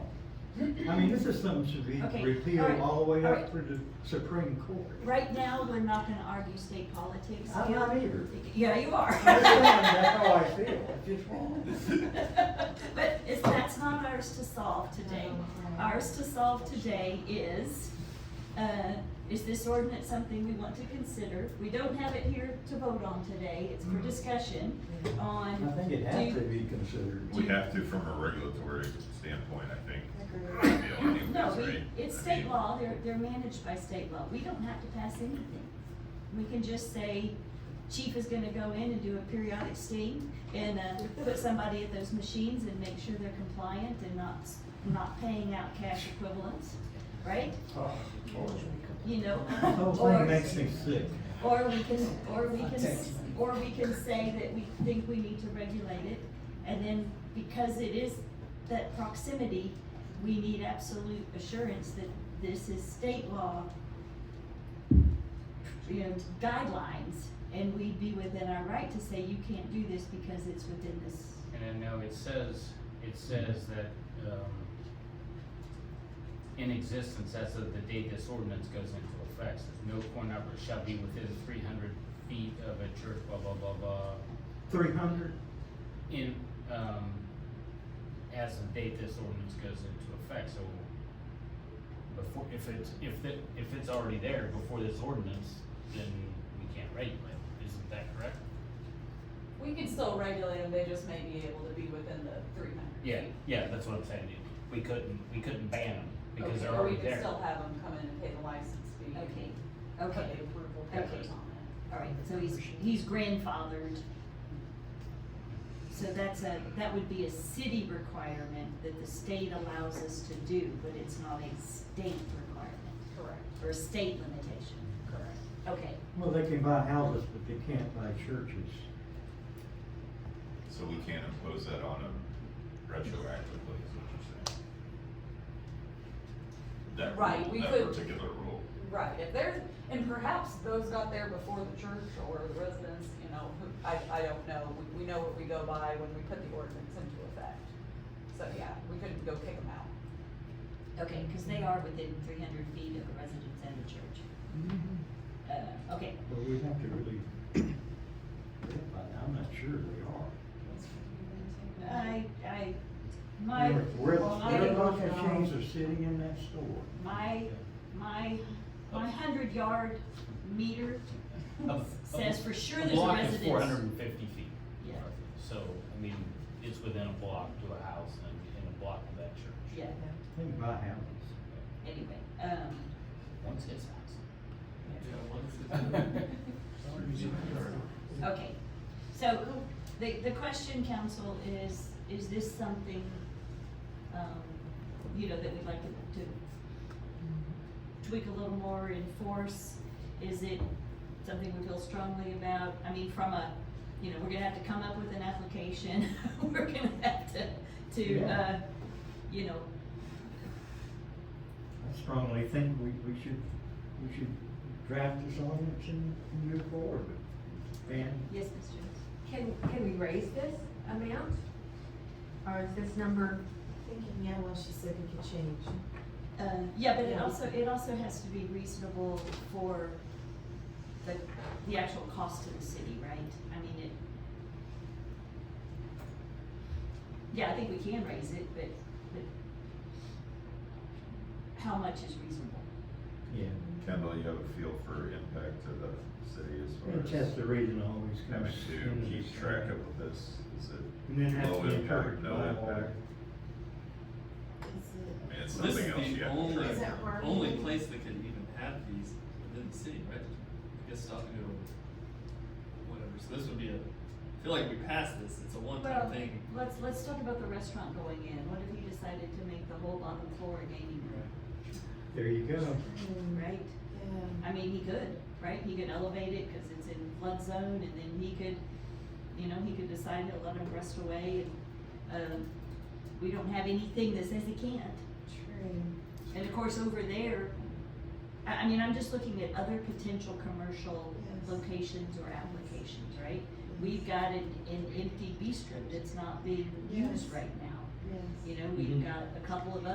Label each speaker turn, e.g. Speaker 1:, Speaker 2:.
Speaker 1: I mean, this is something should
Speaker 2: Okay,
Speaker 1: be
Speaker 2: all
Speaker 1: repealed
Speaker 2: right,
Speaker 1: all the way
Speaker 2: all
Speaker 1: up
Speaker 2: right.
Speaker 1: through the Supreme Court.
Speaker 2: Right now, we're not gonna argue state politics.
Speaker 1: I'm not either.
Speaker 2: Yeah, you are.
Speaker 1: I'm just saying, that's how I feel, it's just wrong.
Speaker 2: But it's, that's not ours to solve today. Ours to solve today is, uh, is this ordinance something we want to consider? We don't have it here to vote on today, it's for discussion on.
Speaker 1: Mm-hmm. I think it
Speaker 2: do-
Speaker 1: has to be considered.
Speaker 3: We have to from a regulatory standpoint, I think.
Speaker 4: Agreed.
Speaker 3: you know, anyways,
Speaker 2: No,
Speaker 3: right?
Speaker 2: we, it's
Speaker 3: I
Speaker 2: state
Speaker 3: mean,
Speaker 2: law, they're, they're managed by state law, we don't have to pass anything. We can just say, chief is gonna go in and do a periodic sting and, uh, put somebody at those machines and make sure they're compliant and not, not paying out cash equivalents, right?
Speaker 1: Oh, Lord.
Speaker 2: You know?
Speaker 1: The whole
Speaker 2: or-
Speaker 1: thing makes me sick.
Speaker 2: Or we can, or we can, or we can say that we think we need to regulate it, and then because it is that proximity, we need absolute assurance that this is state law, you know, guidelines, and we'd be within our right to say you can't do this because it's within this.
Speaker 5: And I know it says, it says that, um, in existence as of the date this ordinance goes into effect, says no corn arbor shall be within three hundred feet of a church, blah, blah, blah, blah,
Speaker 1: Three hundred?
Speaker 5: in, um, as of date this ordinance goes into effect, so before, if it's, if it, if it's already there before this ordinance, then we can't regulate, it. isn't that correct?
Speaker 4: We can still regulate them, they just may be able to be within the three hundred.
Speaker 5: Yeah, yeah, that's what I'm saying, we couldn't, we couldn't ban them, because they're
Speaker 4: Or we
Speaker 5: already
Speaker 4: could
Speaker 5: there.
Speaker 4: still have them come in and pay the license fee. and
Speaker 2: Okay,
Speaker 4: put
Speaker 2: okay,
Speaker 4: the approval
Speaker 2: Okay.
Speaker 4: papers on
Speaker 2: all right, so he's, he's grandfathered. So that's a, that would be a city requirement that the state allows us to do, but it's not a state requirement.
Speaker 4: it. Correct.
Speaker 2: or a state limitation.
Speaker 4: Correct.
Speaker 2: Okay,
Speaker 1: Well, they can buy houses, but they can't buy churches.
Speaker 3: So we can't impose that on them retroactively, is what you're saying? That
Speaker 4: Right,
Speaker 3: rule,
Speaker 4: we
Speaker 3: that
Speaker 4: could-
Speaker 3: particular rule.
Speaker 4: Right, if there's, and perhaps those got there before the church or the residents, you know, who- I, I don't know. We, we know what we go by when we put the ordinance into effect. So, yeah, we couldn't go kick them out.
Speaker 2: okay, because they are within three hundred feet of the residence and the church. Mm-hmm. Uh, okay,
Speaker 1: But we have to really, I'm not sure they are.
Speaker 4: Uh,
Speaker 2: I, I, my,
Speaker 1: Where, where
Speaker 2: my,
Speaker 1: those machines are sitting in that store.
Speaker 2: my, my, my hundred yard meter
Speaker 5: A- a-
Speaker 2: says for sure
Speaker 5: a
Speaker 2: there's a
Speaker 5: block is
Speaker 2: residence.
Speaker 5: Four hundred and fifty feet.
Speaker 2: Yeah.
Speaker 5: roughly. So, I mean, it's within a block to a house and in a block of that church.
Speaker 2: Yeah,
Speaker 1: They can buy houses.
Speaker 2: anyway, um,
Speaker 5: Once his house.
Speaker 2: okay. So the, the question, council, is, is this something, um, you know, that we'd like to, to tweak a little more in force? Is it something we feel strongly about? I mean, from a, you know, we're gonna have to come up with an application, we're gonna have to, to, uh,
Speaker 1: Yeah.
Speaker 2: you know,
Speaker 1: I strongly think we, we should, we should draft this ordinance and move forward. And
Speaker 2: yes, Ms. Jones?
Speaker 6: Can, can we raise this amount? Or is this number?
Speaker 7: Thinking, yeah, well, she said we could change.
Speaker 2: Uh, yeah, but it
Speaker 7: Yeah.
Speaker 2: also, it also has to be reasonable for the, the actual cost to the city, right? I mean, it. Yeah, I think we can raise it, but, but how much is reasonable?
Speaker 1: Yeah,
Speaker 3: Kendall, you have a feel for impact to the city
Speaker 1: and
Speaker 3: as far as
Speaker 1: Chester region always
Speaker 3: having
Speaker 1: comes.
Speaker 3: to keep track of this, is it
Speaker 1: And then has to
Speaker 3: low
Speaker 1: be
Speaker 3: impact,
Speaker 1: covered
Speaker 3: no
Speaker 1: by all-
Speaker 3: impact? I mean, it's something else you have to
Speaker 8: only,
Speaker 3: track.
Speaker 7: Is that where-
Speaker 8: only place that can even have these within the city, right? I guess Stockton or whatever, so this would be a, I feel like we passed this, it's a
Speaker 2: Well,
Speaker 8: one-time thing.
Speaker 2: let's, let's talk about the restaurant going in. What if you decided to make the whole bottom floor a gaming room,
Speaker 1: There you go.
Speaker 7: Hmm,
Speaker 2: right?
Speaker 7: Yeah.
Speaker 2: I mean, he could, right? He could elevate it because it's in flood zone and then he could, you know, he could decide to let him rest away and, um, we don't have anything that says he can't.
Speaker 7: True.
Speaker 2: And of course, over there, I, I mean, I'm just looking at other potential commercial
Speaker 7: Yes.
Speaker 2: locations or applications, right? We've got an, an empty bistro that's not being used
Speaker 7: Yes.
Speaker 2: right now.
Speaker 7: Yes.
Speaker 2: You know,
Speaker 1: Mhm.
Speaker 2: we've got a couple of